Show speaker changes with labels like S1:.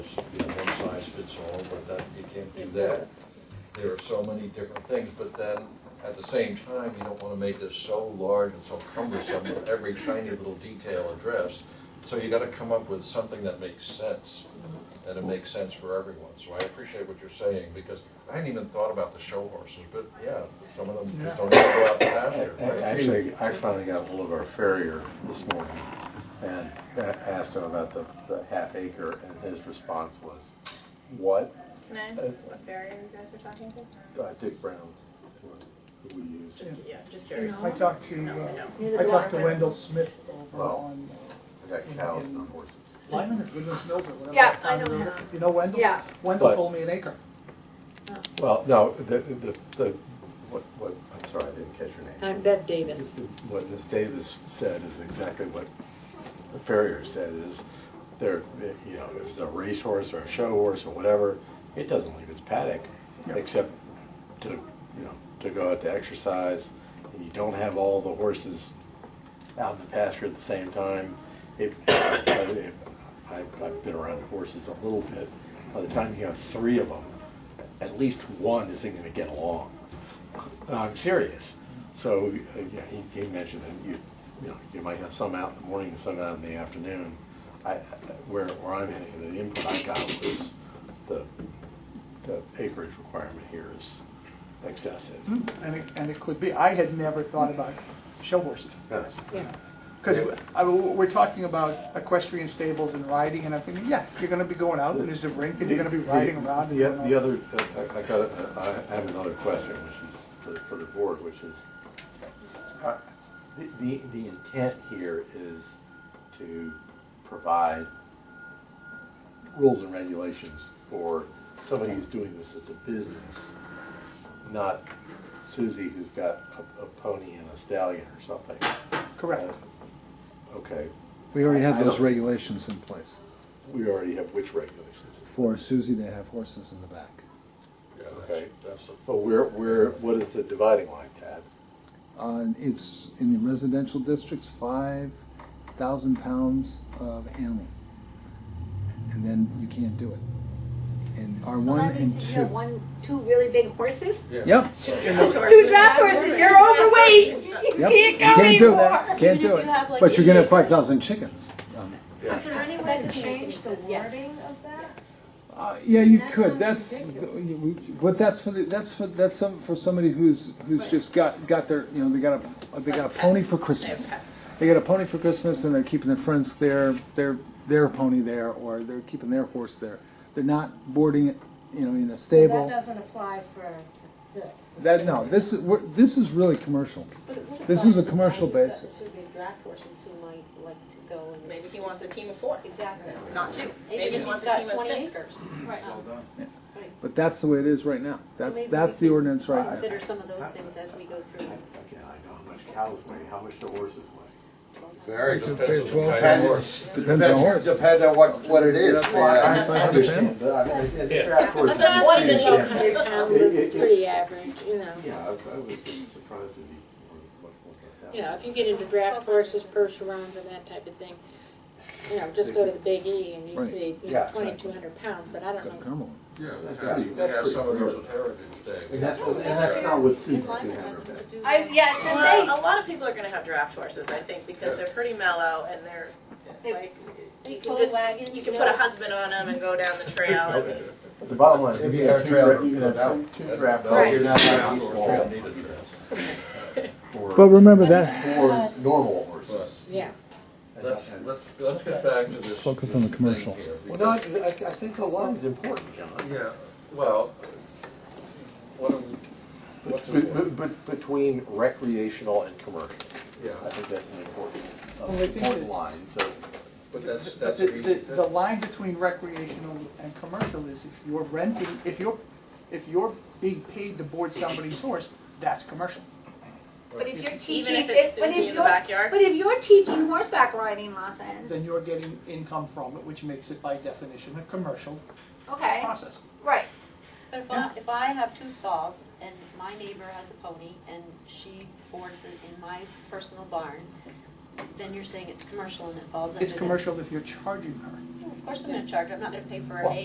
S1: that there are so many different things, but then at the same time, you don't wanna make this so large and so cumbersome with every tiny little detail addressed. So you gotta come up with something that makes sense, and it makes sense for everyone. So I appreciate what you're saying, because I hadn't even thought about the show horses, but yeah, some of them just don't even go out to pasture. right?
S2: Actually, I finally got hold of our farrier this morning and uh, asked him about the, the half acre and his response was, what?
S3: Can I ask what barrier you guys are talking to?
S2: Uh, Dick Brown's, who we use.
S3: Just, yeah, just curious.
S4: I talked to,
S3: No, I know.
S4: uh, I talked to Wendell Smith over
S2: Well.
S4: on
S2: I got cows, not horses.
S4: uh, Lyman or Goodman's Mills or whatever.
S3: Yeah,
S4: that
S3: I
S4: town
S3: know
S4: is.
S3: him.
S4: You know Wendell?
S3: Yeah.
S4: Wendell
S2: But-
S4: told me an acre.
S2: Well, no, the, the, the, what, what, I'm sorry, I didn't catch your name.
S5: I'm Bev Davis.
S2: What Ms. Davis said is exactly what the farrier said is there, you know, if it's a racehorse or a show horse or whatever, it doesn't leave its paddock
S4: Yeah.
S2: except to, you know, to go out to exercise. And you don't have all the horses out in the pasture at the same time. It, I- I've, I've been around horses a little bit. By the time you have three of them, at least one isn't gonna get along. Uh, I'm serious. So, uh, yeah, he, he mentioned that you, you know, you might have some out in the morning and some out in the afternoon. I, I- where, where I'm at, the input I got was the, the acreage requirement here is excessive.
S4: And it, and it could be. I had never thought about show horses.
S2: Yes.
S5: Yeah.
S4: Because I, we're talking about equestrian stables and riding, and I'm thinking, yeah, you're gonna be going out, and there's a rink, and you're gonna be riding around. and
S2: The,
S4: going
S2: the
S4: on.
S2: other, uh, I- I got, a- I have another question, which is for, for the board, which is, uh, the, the the intent here is to provide rules and regulations for somebody who's doing this as a business, not Susie who's got a, a pony and a stallion or something.
S4: Correct.
S2: Okay,
S6: We already
S2: I
S6: have those
S2: don't-
S6: regulations in place.
S2: we already have which regulations?
S6: For Susie, they have horses in the back.
S1: Yeah,
S2: Okay.
S1: that's- That's the
S2: But where, where, what is the dividing line, Tad?
S6: Uh, it's in the residential districts, five thousand pounds of animal. And then you can't do it. And R
S7: So
S6: one
S7: that
S6: and
S7: means you
S6: two.
S7: have one, two really big horses?
S6: Yep,
S7: Two draft horses, you're overweight, you
S6: yep.
S7: can't go
S6: Can't do it.
S7: anymore.
S6: Can't
S3: Even
S6: do
S3: if you have,
S6: it.
S3: like,
S6: But you're gonna
S3: eight
S6: have
S3: acres.
S6: five thousand chickens. Um,
S7: Is there any way to change the wording?
S8: of that?
S6: Uh, yeah, you
S8: That
S6: could,
S8: sounds
S6: that's,
S8: ridiculous.
S6: but that's for the, that's for, that's some, for somebody who's, who's just got, got their, you know, they got a, they got a pony for Christmas. They got a pony for Christmas and they're keeping their friends there, their, their pony there, or they're keeping their horse there. They're not boarding it, you know, in a
S8: So That
S6: stable.
S8: doesn't apply for this.
S6: That, no, this is, we're, this is really commercial.
S8: But it would
S6: this
S8: apply
S6: is a
S8: to
S6: commercial
S8: drivers,
S6: basis.
S8: that Should be draft horses who might like to go and.
S3: Maybe he wants a team of four,
S8: Exactly.
S3: not two. Maybe
S8: Maybe
S3: he
S8: he's
S3: wants a
S8: got
S3: team of
S8: twenty
S3: six.
S8: acres. Um,
S7: Right.
S6: But that's the way it is right now. That's,
S8: maybe
S6: that's
S8: we
S6: the
S8: can
S6: ordinance right now.
S8: Consider some of those things as we go through.
S2: Again, I know how much cows weigh, how much the horses weigh.
S9: Very.
S1: Depends on the kind of horse.
S9: Depends,
S6: Depends on horse.
S9: depends depends on what, what it is.
S6: Five hundred pounds.
S2: uh,
S5: That's one million a hundred pound
S2: It-
S5: is
S2: it-
S5: pretty average, you know.
S2: Yeah, I I was surprised that he, what, what
S5: You know, if you get into draft horses, Percherons and that type of thing, you know, just go to the Big E and you
S6: Right.
S5: see
S9: Yeah, exactly.
S5: twenty-two hundred pounds, but I don't know.
S6: Carmel.
S1: Yeah,
S2: That's
S1: we have-
S2: pretty-
S1: we
S2: that's
S1: have
S2: pretty
S1: some of
S2: rare.
S1: those at Heritage Day.
S2: And that's, and that's not what Susan's gonna have her back.
S7: I, yeah, it's just
S3: Well,
S7: saying,
S3: a lot of people are gonna have draft horses, I think, because they're pretty mellow and they're,
S7: They-
S3: like,
S7: they
S3: you can
S7: pull
S3: just,
S7: wagons,
S3: you can
S7: you
S3: put a
S7: know.
S3: husband on them and go down the trail and.
S2: But The bottom line is, if
S9: If
S2: you
S9: you
S2: have
S9: have
S2: two,
S9: trailer,
S2: dra- you can
S9: no
S2: have
S9: doubt.
S2: two draft
S1: No,
S2: horses,
S1: you're
S2: you're
S1: not
S2: not
S1: allowed
S2: allowed
S1: to
S2: to
S1: need a dress.
S6: But
S2: or,
S6: remember that,
S2: or normal horses.
S5: Yeah,
S2: And-
S1: Let's,
S2: and-
S1: let's, let's get back to this.
S6: Focus
S1: this
S6: on the
S1: thing
S6: commercial.
S1: here,
S2: Well, no, I, I I think the line's important, John.
S1: Yeah, well, what, do we- what's important?
S2: But, but, between recreational and commercial,
S1: Yeah,
S2: I think that's an important,
S4: Well, I think
S2: important
S4: that-
S2: line, so.
S1: but that's,
S4: But
S1: that's
S4: the,
S1: an easy
S4: the,
S1: thing.
S4: the line between recreational and commercial is if you're renting, if you're, if you're being paid to board somebody's horse, that's commercial.
S7: but if you're
S3: Even
S7: teaching,
S3: if it's
S7: if, but
S3: Susie
S7: if
S3: in the
S7: you're,
S3: backyard,
S7: but if you're teaching horseback riding lessons,
S4: Then you're getting income from it, which makes it by definition a commercial
S7: okay,
S4: process.
S7: right.
S8: But if I, if I have two stalls and my neighbor has a pony and she boards it in my personal barn, then you're saying it's commercial and it falls under
S4: It's
S8: this.
S4: commercial if you're charging her.
S8: Of course I'm gonna charge, I'm not gonna pay for
S4: Well,
S8: an